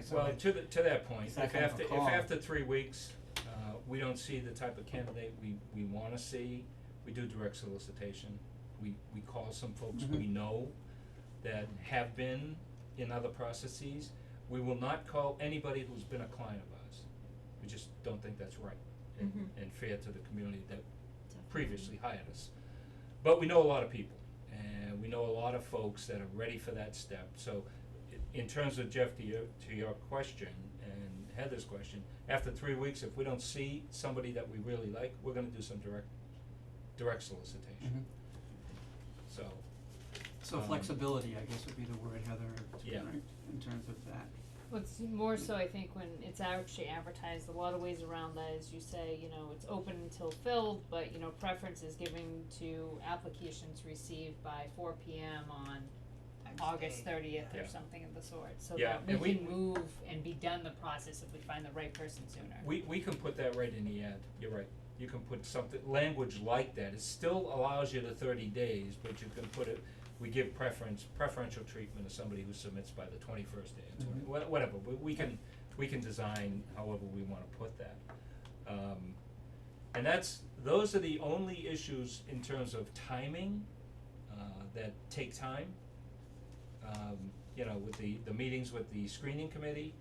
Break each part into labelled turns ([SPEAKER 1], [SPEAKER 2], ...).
[SPEAKER 1] Well,
[SPEAKER 2] somebody,
[SPEAKER 1] to the, to that point,
[SPEAKER 2] It's
[SPEAKER 1] if
[SPEAKER 2] not kind of a
[SPEAKER 1] after, if
[SPEAKER 2] call.
[SPEAKER 1] after three weeks, uh, we don't see the type of candidate we, we wanna see, we do direct solicitation. We, we call some folks we
[SPEAKER 2] Mm-hmm.
[SPEAKER 1] know that have been in other processes. We will not call anybody who's been a client of ours. We just don't think that's right and,
[SPEAKER 2] Mm-hmm.
[SPEAKER 1] and fair to the community that previously hired us. But we know a lot of people, and we know a lot of folks that are ready for that step, so i- in terms of Jeff, to your, to your question and Heather's question, after three weeks, if we don't see somebody that we really like, we're gonna do some direct, direct solicitation,
[SPEAKER 2] Mhm.
[SPEAKER 1] so,
[SPEAKER 2] So
[SPEAKER 1] Um,
[SPEAKER 2] flexibility, I guess, would be the word, Heather, to-
[SPEAKER 1] Yeah.
[SPEAKER 2] right, in terms of that.
[SPEAKER 3] Well, it's more so, I think, when it's actually advertised, a lot of ways around that is you say, you know, it's open until filled, but, you know, preference is given to applications received by four P M on August thirtieth
[SPEAKER 1] Yeah.
[SPEAKER 3] or something of the sort, so
[SPEAKER 1] Yeah,
[SPEAKER 3] that we
[SPEAKER 1] and we-
[SPEAKER 3] can move and be done the process if we find the right person sooner.
[SPEAKER 1] we, we can put that right in the ad, you're right. You can put something, language like that, it still allows you the thirty days, but you can put it, we give preference, preferential treatment to somebody who submits by the twenty-first day, or twenty,
[SPEAKER 2] Mhm.
[SPEAKER 1] wha- whatever, we, we can, we can design however we wanna put that. Um, and that's, those are the only issues in terms of timing, uh, that take time. Um, you know, with the, the meetings with the screening committee,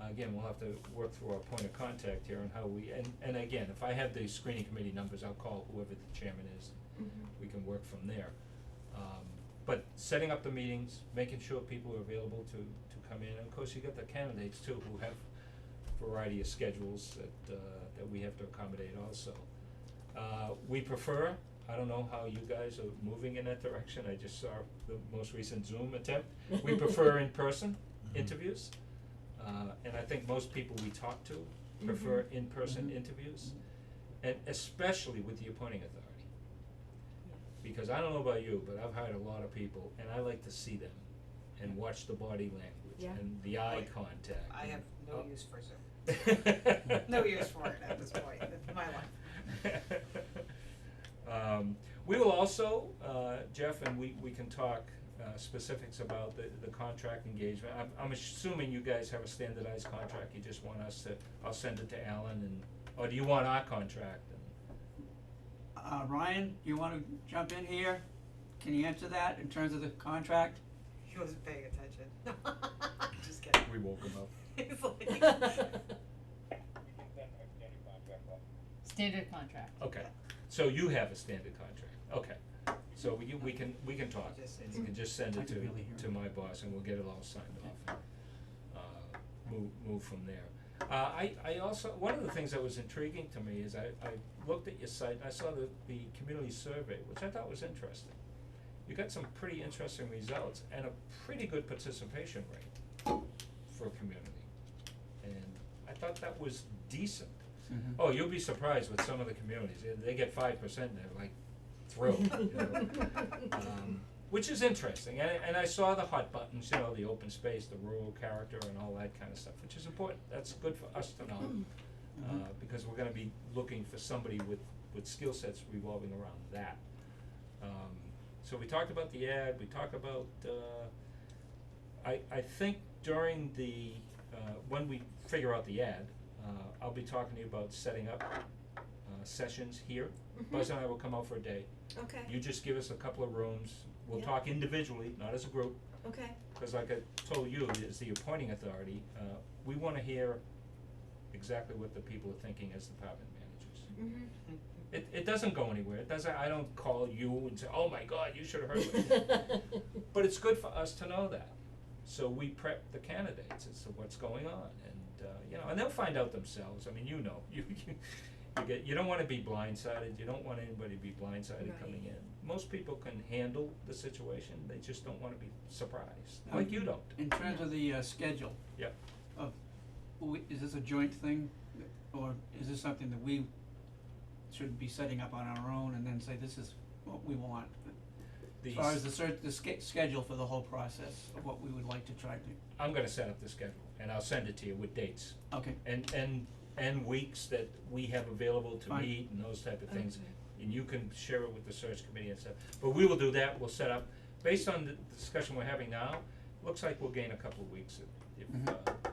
[SPEAKER 1] again, we'll have to work through our point of contact here on how we, and, and again, if I have the screening committee numbers, I'll call whoever the chairman is.
[SPEAKER 4] Mm-hmm.
[SPEAKER 1] We can work from there. Um, but setting up the meetings, making sure people are available to, to come in, and of course, you got the candidates too, who have variety of schedules that, uh, that we have to accommodate also. Uh, we prefer, I don't know how you guys are moving in that direction, I just saw the most recent Zoom attempt, we prefer in-person interviews. Uh, and I think most people we talk to prefer in-person
[SPEAKER 2] Mhm.
[SPEAKER 1] interviews, and especially with the appointing authority. Because I don't know about you, but I've hired a lot of people, and I like to see them, and watch the body
[SPEAKER 4] Yeah.
[SPEAKER 1] language, and the eye
[SPEAKER 5] Like,
[SPEAKER 1] contact.
[SPEAKER 5] I have no
[SPEAKER 1] Oh.
[SPEAKER 5] use for Zoom.
[SPEAKER 1] have
[SPEAKER 5] No use for it at this point, it's my life.
[SPEAKER 1] Um, we will also, uh, Jeff, and we, we can talk, uh, specifics about the, the contract engagement. I'm, I'm assuming you guys have a standardized contract, you just want us to, I'll send it to Alan and, or do you want our contract? And-
[SPEAKER 2] Uh, Ryan, you wanna jump in here? Can you answer that in terms of the contract?
[SPEAKER 5] He wasn't paying attention. Just kidding.
[SPEAKER 1] We woke him up.
[SPEAKER 5] He's like,
[SPEAKER 6] We can send a standing contract letter.
[SPEAKER 3] Standard contract.
[SPEAKER 1] Okay, so you have a standard contract, okay. So we, we can, we can talk,
[SPEAKER 5] Just-
[SPEAKER 1] and you can just send
[SPEAKER 2] I
[SPEAKER 1] it
[SPEAKER 2] can barely hear
[SPEAKER 1] to, to
[SPEAKER 2] him.
[SPEAKER 1] my boss, and we'll get it all signed off, and, uh, move, move from there. Uh, I, I also, one of the things that was intriguing to me is I, I looked at your site, and I saw the, the community survey, which I thought was interesting. You got some pretty interesting results, and a pretty good participation rate for a community, and I thought that was decent.
[SPEAKER 2] Mhm.
[SPEAKER 1] Oh, you'll be surprised with some of the communities, They- they get five percent, they're like thrilled, you know? Um, which is interesting, and, and I saw the hot buttons, you know, the open space, the rural character and all that kind of stuff, which is important, that's good for us to know. Uh,
[SPEAKER 2] Mhm.
[SPEAKER 1] because we're gonna be looking for somebody with, with skill sets revolving around that. Um, so we talked about the ad, we talked about, uh, I, I think during the, uh, when we figure out the ad, uh, I'll be talking to you about setting up, uh, sessions here. Buzz and I will come out for a day.
[SPEAKER 4] Okay,
[SPEAKER 1] You just give us a couple of rooms. We'll
[SPEAKER 4] Yeah.
[SPEAKER 1] talk individually, not as a group,
[SPEAKER 4] okay,
[SPEAKER 1] cause like I told you, as the appointing authority, uh, we wanna hear exactly what the people are thinking as department managers.
[SPEAKER 4] mhm.
[SPEAKER 1] It, it doesn't go anywhere. It doesn't, I don't call you and say, oh my god, you should have heard what But it's good for us to know that. So we prep the candidates as to what's going on and, uh, you know, and they'll find out themselves. I mean, you know, you, you, you get, you don't wanna be blindsided. You don't want anybody to be blindsided coming in. Most people can handle the situation. They just don't wanna be surprised,
[SPEAKER 2] Um,
[SPEAKER 1] like you don't.
[SPEAKER 2] In terms of the, uh, schedule.
[SPEAKER 1] Yep.
[SPEAKER 2] Of, we, is this a joint thing, or is this something that we should be setting up on our own and then say, this is what we want? As
[SPEAKER 1] These-
[SPEAKER 2] far as the cert, the sch- schedule for the whole process of what we would like to try to,
[SPEAKER 1] I'm gonna set up the schedule and I'll send it to you with dates.
[SPEAKER 2] okay,
[SPEAKER 1] and and and weeks that we have available to
[SPEAKER 2] Fine.
[SPEAKER 1] meet and those type of things.
[SPEAKER 4] Okay.
[SPEAKER 1] And you can share it with the search committee and stuff, but we will do that, we'll set up, based on the discussion we're having now, looks like we'll gain a couple of weeks if if
[SPEAKER 2] Mhm.
[SPEAKER 1] uh